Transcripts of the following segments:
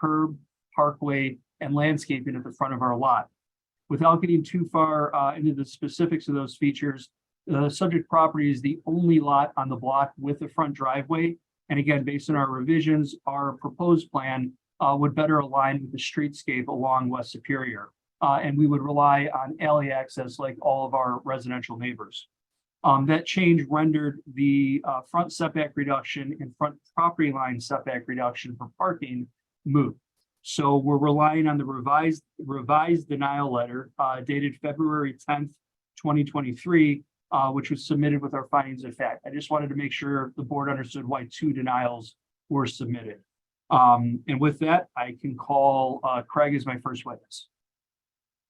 curb, parkway, and landscaping at the front of our lot. Without getting too far uh, into the specifics of those features, the subject property is the only lot on the block with the front driveway. And again, based on our revisions, our proposed plan uh, would better align with the streetscape along West Superior. Uh, and we would rely on alley access like all of our residential neighbors. Um, that change rendered the uh, front setback reduction and front property line setback reduction for parking moot. So we're relying on the revised revised denial letter uh, dated February tenth, twenty twenty-three, uh, which was submitted with our findings of fact. I just wanted to make sure the board understood why two denials were submitted. Um, and with that, I can call uh, Craig as my first witness.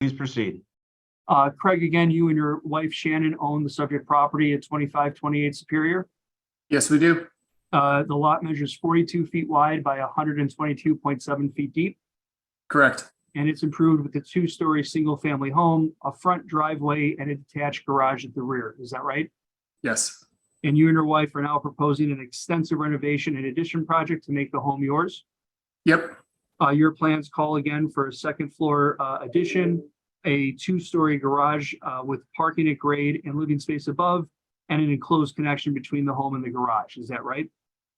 Please proceed. Uh, Craig, again, you and your wife Shannon own the subject property at twenty-five twenty-eight Superior. Yes, we do. Uh, the lot measures forty-two feet wide by hundred and twenty-two point seven feet deep. Correct. And it's improved with a two-story, single-family home, a front driveway, and a detached garage at the rear. Is that right? Yes, And you and your wife are now proposing an extensive renovation and addition project to make the home yours. yep, Uh, your plans call again for a second floor, uh, addition, a two-story garage, uh, with parking at grade and living space above, and an enclosed connection between the home and the garage. Is that right?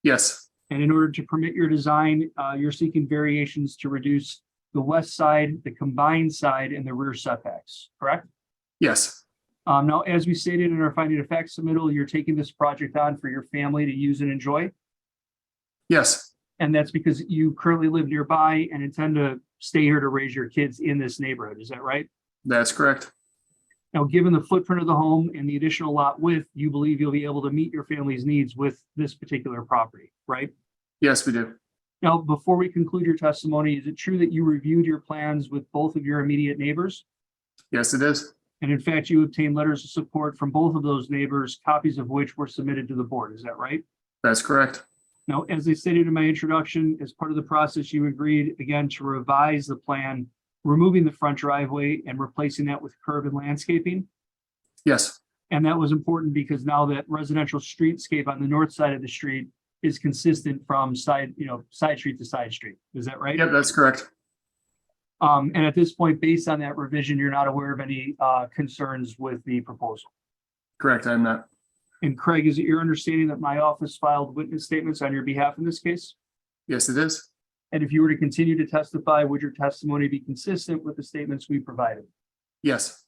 yes, And in order to permit your design, uh, you're seeking variations to reduce the west side, the combined side, and the rear setbacks, correct? yes, Um, now, as we stated in our finding of facts submittal, you're taking this project on for your family to use and enjoy. yes, And that's because you currently live nearby and intend to stay here to raise your kids in this neighborhood. Is that right? that's correct. Now, given the footprint of the home and the additional lot width, you believe you'll be able to meet your family's needs with this particular property, right? Yes, we do. Now, before we conclude your testimony, is it true that you reviewed your plans with both of your immediate neighbors? Yes, it is. And in fact, you obtained letters of support from both of those neighbors, copies of which were submitted to the board. Is that right? That's correct. Now, as I stated in my introduction, as part of the process, you agreed again to revise the plan, removing the front driveway and replacing that with curb and landscaping. Yes, And that was important because now that residential streetscape on the north side of the street is consistent from side, you know, side street to side street. Is that right? yep, that's correct. Um, and at this point, based on that revision, you're not aware of any, uh, concerns with the proposal. Correct, I'm not. And Craig, is it your understanding that my office filed witness statements on your behalf in this case? Yes, it is. And if you were to continue to testify, would your testimony be consistent with the statements we provided? Yes,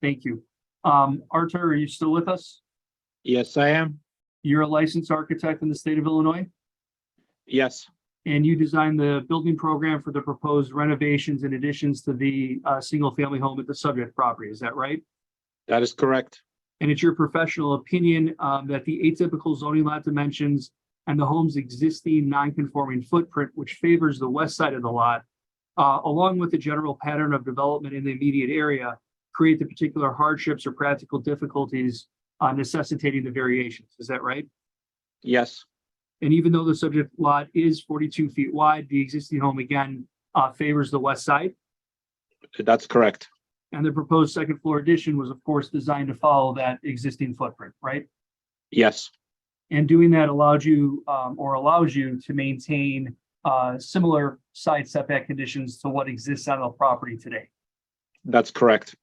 Thank you. Um, Arthur, are you still with us? Yes, I am. You're a licensed architect in the state of Illinois, Yes, and you designed the building program for the proposed renovations and additions to the, uh, single-family home at the subject property. Is that right? that is correct. And it's your professional opinion um, that the atypical zoning lot dimensions and the home's existing non-conforming footprint, which favors the west side of the lot, uh, along with the general pattern of development in the immediate area, create the particular hardships or practical difficulties uh, necessitating the variations. Is that right? Yes, And even though the subject lot is 42 feet wide, the existing home again uh, favors the west side. that's correct. And the proposed second floor addition was, of course, designed to follow that existing footprint, right? Yes, And doing that allowed you, um, or allows you to maintain, uh, similar side setback conditions to what exists on the property today. that's correct.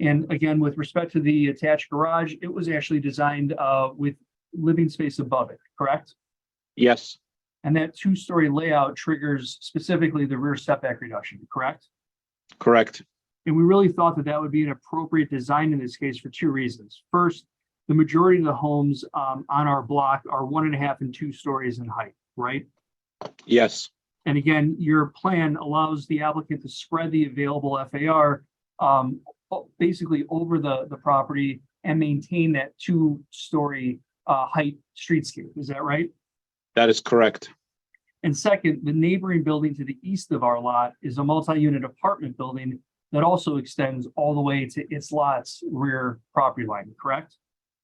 And again, with respect to the attached garage, it was actually designed, uh, with living space above it, correct? Yes, And that two-story layout triggers specifically the rear setback reduction, correct? correct. And we really thought that that would be an appropriate design in this case for two reasons. First, the majority of the homes, um, on our block are one and a half and two stories in height, right? Yes, And again, your plan allows the applicant to spread the available FAR um, o- basically over the, the property and maintain that two-story uh, height streetscape. Is that right? that is correct. And second, the neighboring building to the east of our lot is a multi-unit apartment building that also extends all the way to its lot's rear property line, correct?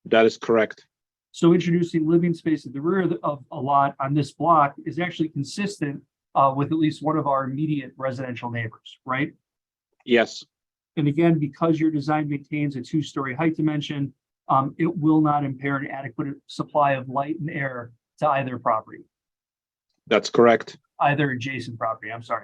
That is correct. So introducing living space at the rear of the- of a lot on this block is actually consistent uh, with at least one of our immediate residential neighbors, right? Yes, And again, because your design maintains a two-story height dimension, um, it will not impair an adequate supply of light and air to either property, that's correct. either adjacent property, I'm sorry.